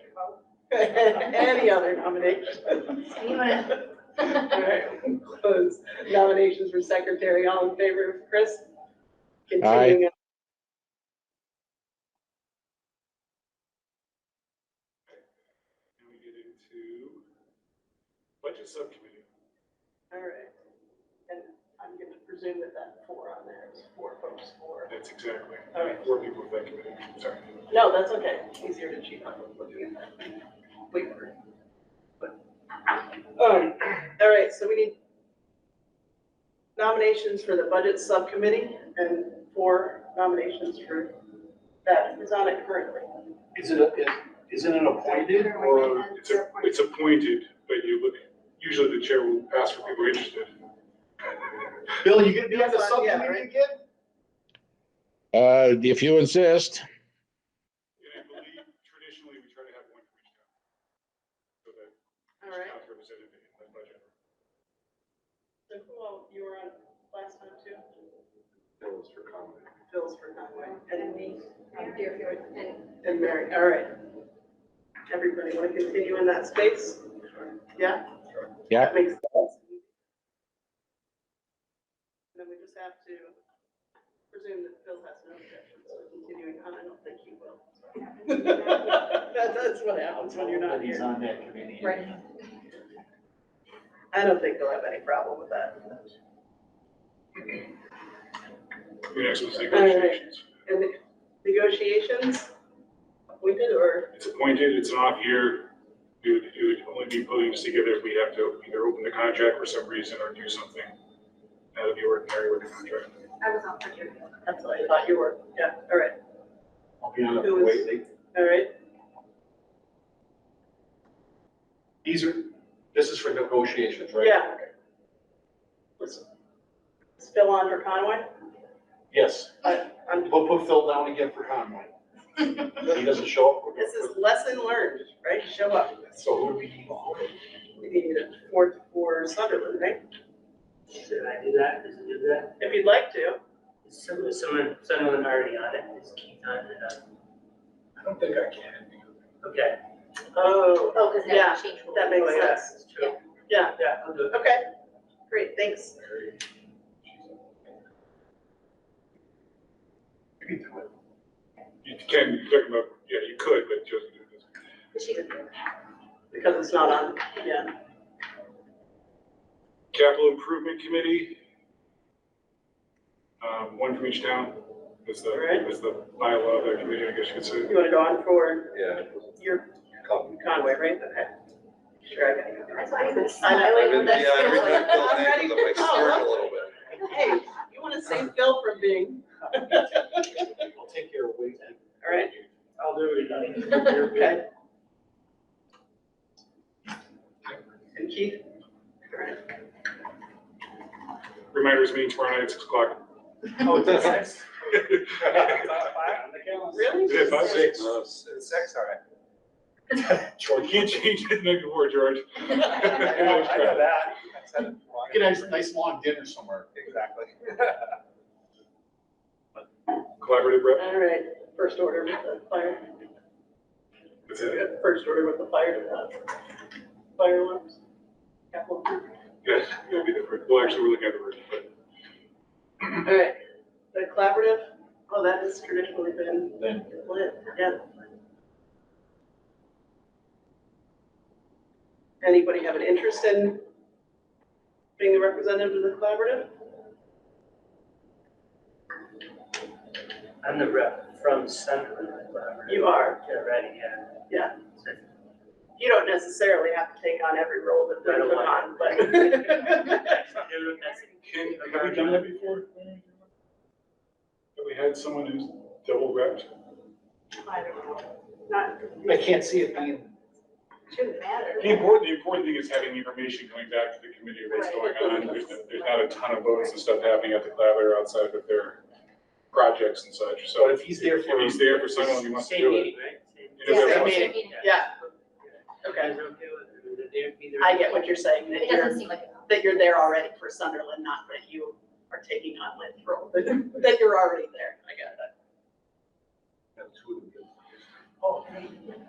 Any other nominations? Anyone? All right, Close nominations for secretary. All in favor of Chris? Continuing on. And we get into budget subcommittee. All right. And I'm going to presume that that four on there is four folks, four. That's exactly, All right. four people of that committee, sorry. No, that's okay. Easier to cheat on. Wait for it. Um, all right, so we need nominations for the budget subcommittee and four nominations for that is on it currently. Is it, a- is, isn't it appointed or? Or it's, a- it's appointed, but you look, usually the chair will ask for people interested. Bill, you gonna be on Yes, the yeah, subcommittee right. again? Uh, if you insist, And I believe traditionally we try to have one for each town. So that All right. each town's represented in the budget. So who all, you were on last time too? That was for comment. Phil's for Conway and me I'm here if you're, and and Mary, all right. Everybody want to continue in that space? Yeah? Yeah. That makes sense. And then we just have to presume that Phil has no objections to continuing on, I don't think he will. That- That's what happens when you're not He's here. on that committee. Right. I don't think they'll have any problem with that. Your next one's negotiations. And the negotiations, appointed or, It's appointed, it's an off year. It would, it would only be put together if we have to either open the contract for some reason or do something out of the ordinary with the contract. I was on for your. that's what I thought you were, yeah, all right, I'll be on It it for was- Whately. all right, These are, this is for negotiations, right? yeah. Let's let's Phil on for Conway? Yes, I- I'm- we'll put Phil down again for Conway. If he doesn't show up, we're This gonna is lesson learned, right? Show up. put, so who would be? We need a fourth for Sunderland, right? Should I do that? Does it do that? If you'd like to. Is Someone, someone, someone already on it, is Keith on it? Uh, I don't think I can. Okay. Oh, Oh, because Yeah, that changed. that makes Oh, yeah, sense. that's true. Yeah, Yeah, I'll do it. okay. Great, thanks. You can do it. You can, you're talking about, yeah, you could, but just. She's- Because it's not on, yeah. Capital Improvement Committee. Um, one from each town is the, Alright. is the bylaw of that committee, I guess you could say. You want to go on for Yeah. your Come. Conway, right? Okay. Sure, I got you. That's why I was I I've smiling been, when yeah, that. I've been I'm doing Phil's name ready because for I'm like scared a little bit. Hey, you want to save Phil from being, I'll take care of Whately. all right? I'll do it. Okay. And Keith? All right. Reminders meeting tomorrow night at six o'clock. Oh, it's at six? Really? Yeah, five, six. Uh, No, it's- it's sex, all right. George, you can't change it night before, George. I know, I know that. Get a nice, nice long dinner somewhere. Exactly. Collaborative rep. All right, first order with the fire. That's it. First order with the fire, uh, fire alarms. Capital. Yes, it'll be different. Well, actually, we're looking at the version, but All right, the collaborative, oh, that has traditionally been Then, lit, yeah. Anybody have an interest in being the representative of the collaborative? I'm the rep from Sunderland, whatever. You are, Yeah, right, yeah. Yeah. you don't necessarily have to take on every role that I they're don't put on, want but. can, have we done that before? Have we had someone who's double repped? I don't know, not, I can't see it being Shouldn't matter. The important, the important thing is having the information coming back to the committee of what's going on. There's, there's not a ton of votes and stuff happening at the collaborator outside of their projects and such, so. So if he's there for, If he's there for someone, he wants to do it. Yeah, If same everyone- meeting. yeah, okay, I get what you're saying, that It you're, doesn't seem like. a- that you're there already for Sunderland, not that you are taking on Lynn's role, but that you're already there, I get it. two of them.